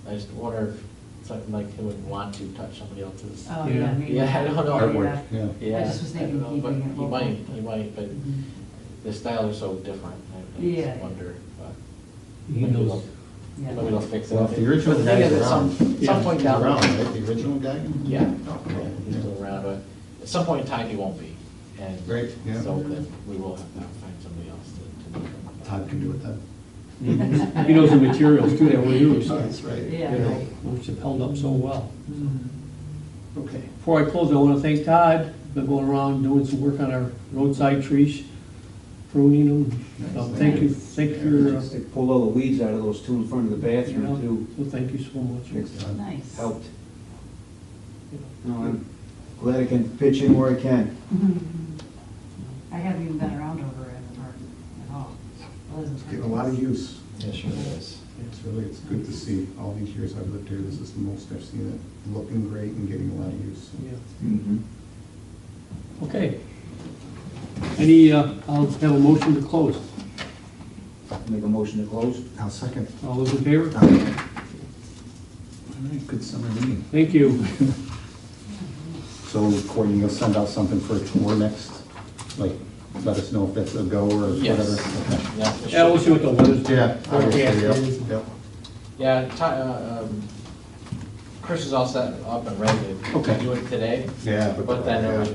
I just wonder if something like him would want to touch somebody else's. Oh, Yeah. yeah, maybe. Yeah, I don't know. Artwork, yeah. Yeah, I just was don't thinking know, but keeping it He local. might, he might, but Mhm. the styles are so different. I- I Yeah. just wonder, but. He maybe knows, they'll- Maybe Yeah. they'll fix it. Well, if the But original thing guy's is, at around. Some, some point down. Around, right, the original guy? Yeah, Oh, yeah, he's yeah. still around, but at some point in time, he won't be. And Right, yeah. so then we will have to find somebody else to, to do it. Todd can do it then. he knows the materials too that we use, you That's right. Yeah. know, which have held up so well. Mhm. Okay, before I close, I want to thank Todd, been going around doing some work on our roadside trees, pruning them. So Thank you, thank your, uh, They pulled all the weeds out of those two in front of the you know, bathroom too. so thank you so much. It's Nice. Helped. No, I'm glad I can pitch in where I can. I haven't even been around over at Norton at all. Well, isn't Get a lot of Norton- use. Yeah, sure it is. It's really, it's good to see, all these years I've lived here, this is the most I've seen it, looking great and getting a lot of use. Yeah. Mm-hmm. Okay. Any, uh, I'll have a motion to close. Make a motion to close? Now, second. All those in favor? All right, good summer meeting. Thank you. So Courtney, you'll send out something for a tour next, like, let us know if that's a go or Yes. whatever? Okay. Yeah, it Yeah, we'll should- see what the weather's doing. Yeah. obviously, yep, Forecast is. yep. Yeah, Ti- uh, um, Chris is all set up and ready to Okay. do it today. Yeah. But then there was